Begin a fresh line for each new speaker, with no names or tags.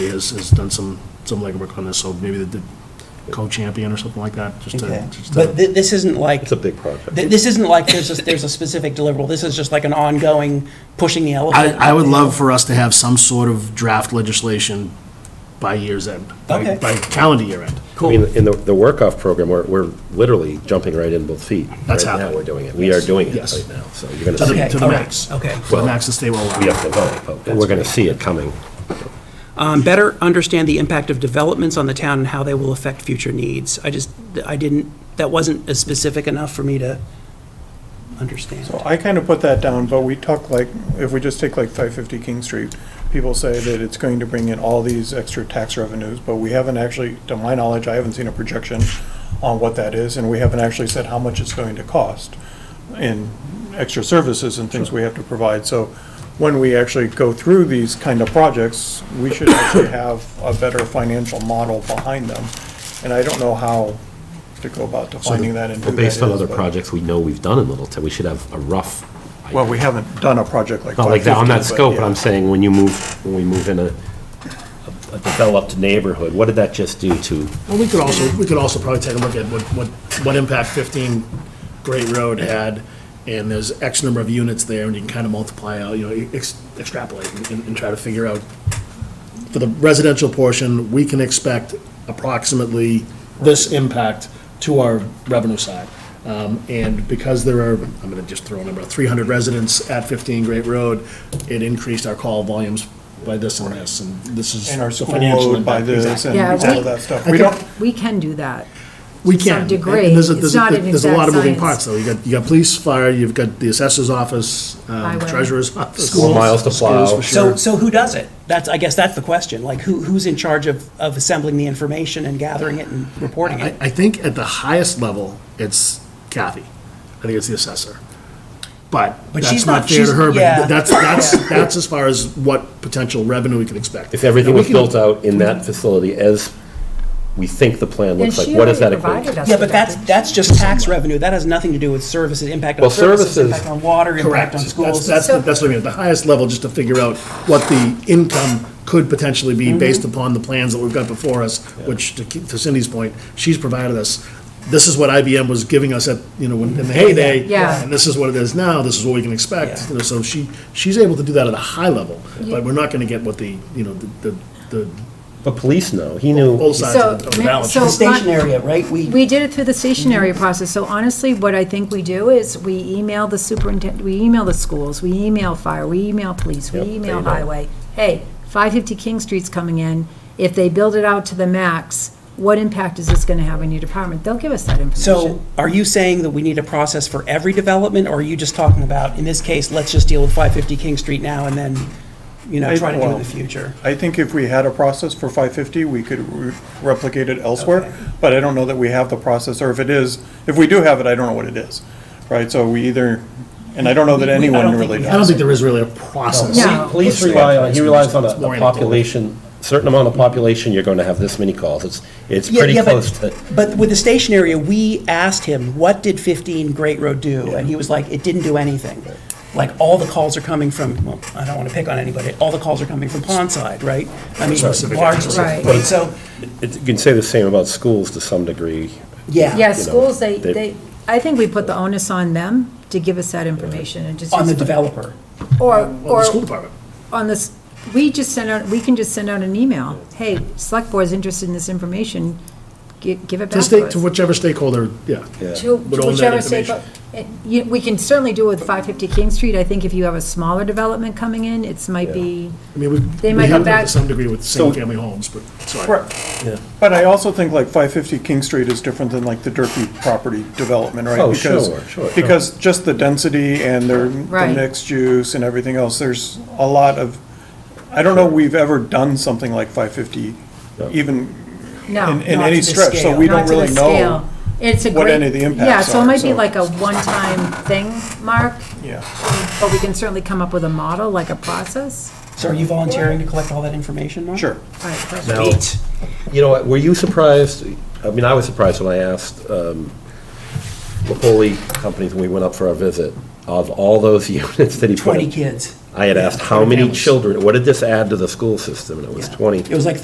has, has done some, some legwork on this, so maybe the- the co-champion or something like that, just
Okay.
to, just
But
to,
thi- this isn't like,
It's a big project.
thi- this isn't like there's a, there's a specific deliverable. This is just like an ongoing pushing the
I,
elephant.
I would love for us to have some sort of draft legislation by year's end, by,
Okay.
by calendar year end.
I mean, in the, the work-off program, we're, we're literally jumping right in both feet.
That's
Right now,
happening.
we're doing it. We are doing it
Yes.
right now, so you're going to
To
see
the,
it.
to the
all right,
max.
okay.
To the max the state will
We
allow.
have to vote, but we're going to see it coming.
Um, better understand the impact of developments on the town and how they will affect future needs. I just, I didn't, that wasn't as specific enough for me to understand.
So I kind of put that down, but we talk like, if we just take like 550 King Street, people say that it's going to bring in all these extra tax revenues, but we haven't actually, to my knowledge, I haven't seen a projection on what that is, and we haven't actually said how much it's going to cost in extra services and things we have to provide. So when we actually go through these kind of projects, we should actually have a better financial model behind them. And I don't know how to go about defining that and who
Well,
that
based on
is,
other
but-
projects we know we've done in Littleton, we should have a rough,
Well, we haven't done a project like
not like that on that
550,
scope, but I'm
yeah.
saying when you move, when we move in a, a developed neighborhood, what did that just do to?
Well, we could also, we could also probably take a look at what, what, what impact 15 Great Road had, and there's X number of units there, and you can kind of multiply out, you know, e-, ex- extrapolate and, and try to figure out. For the residential portion, we can expect approximately this impact to our revenue side. Um, And because there are, I'm going to just throw a number, 300 residents at 15 Great Road, it increased our call volumes by this and this, and this is
And our
the
school
financial
load by
impact.
this and
Yeah,
all
we-
of that stuff.
I
We
think-
don't,
We can do that.
We
to some
can. and- and
degree.
there's a-
It's
there's a-
not an
There's a lot of
exact
moving parts,
science.
though. You got, you got police, fire, you've got the assessor's office, um,
Highway.
treasurer's office.
More
schools-
miles to
schools
plow.
for
So,
sure.
so who does it? That's, I guess that's the question. Like, who, who's in charge of, of assembling the information and gathering it and reporting
I,
it?
I think at the highest level, it's Kathy. I think it's the assessor. But
But she's
that's
not-
not fair to
she's-
her, but
yeah.
that's, that's, that's as far as what potential revenue we can expect.
If everything
Now, we
was
can-
built out in that facility as we think the plan
And
looks like,
she
what does that
already
equate
provided
to?
us.
Yeah,
with
but that's,
that.
that's just tax revenue. That has nothing to do with services, impact on
Well,
services,
services-
impact on water,
Correct.
impact on
That's-
schools.
That's,
So-
that's what I mean, at the highest level, just to figure out what the income could potentially
Mm-hmm.
be based upon the plans that we've got before us, which to keep- to Cindy's point, she's provided us, this is what IBM was giving us at, you know, when- in the heyday.
Yeah.
And this is what it is now, this is what we can expect, you know, so she, she's able to do that at a high level, but we're not gonna get what the, you know, the, the, the
But police know, he knew.
both sides of the-
So,
of the
ma-
balance.
so-
The station area, right?
We did it through the stationary process, so honestly, what I think we do is, we email the superintendent, we email the schools, we email fire, we email police, we
Yep, they
email
know.
highway. Hey, five fifty King Street's coming in, if they build it out to the max, what impact is this gonna have on your department? They'll give us that
So
information.
are you saying that we need a process for every development, or are you just talking about, in this case, let's just deal with 550 King Street now and then, you know,
I-
try to do it in
well,
the future?
I think if we had a process for 550, we could re- replicate it elsewhere, but I don't know that we have the process, or if it is, if we do have it, I don't know what it is, right? So we either, and I don't know that
We- I don't
anyone
think
really
we
I don't
does.
think there is really a process.
No.
Police- Police rely on, he relies on a a population, certain amount of population, you're going to have this many calls. It's, it's
Yeah,
pretty
yeah, but-
close to.
But with the station area, we asked him, what did 15 Great Road do? And he was like, it didn't do anything. Like, all the calls are coming from, well, I don't want to pick on anybody, all the calls are coming from Pondside, right? I mean, largely,
Right.
right, so,
It- You can say the same about schools to some degree.
yeah.
Yeah,
you know,
schools, they,
they-
they, I think we put the onus on them to give us that information and just.
On the developer.
Or,
Well, the
or
school department.
on this, we just send out, we can just send out an email, hey, select board's interested in this information, gi- give it
To
back
stake,
to
to
us.
whichever stakeholder, yeah.
To
would own that
whichever state-
information.
it- you- We can certainly do it with 550 King Street, I think if you have a smaller development coming in, it's might be,
I mean, we,
They
we
might
have
come
that to
back-
some degree with single-family homes, but, sorry.
Right.
But I also think like 550 King Street is different than like the Durkey property development, right?
Oh,
Because-
sure, sure, sure.
Because just the density and their, the
Right.
mixed use and everything else, there's a lot of, I don't know we've ever done something like 550, even in,
no,
in
Not to
any
the
stretch, so
scale.
we
not
don't
to the
really
scale.
know.
It's a
what
great-
any of the
Yeah,
impacts
so it
are,
might be
so-
like a one-time thing, Mark,
Yeah.
but we can certainly come up with a model, like a process.
So are you volunteering to collect all that information, Mark?
Sure.
All right, perfect.
Now,
Eight.
You know, what, were you surprised, I mean, I was surprised when I asked um, Lapoli companies when we went up for our visit, of all those units that he put.
20
in-
kids.
I had asked how
Twenty
many
families.
children, what did this add to the school system? And it was
Yeah.
20.
It was like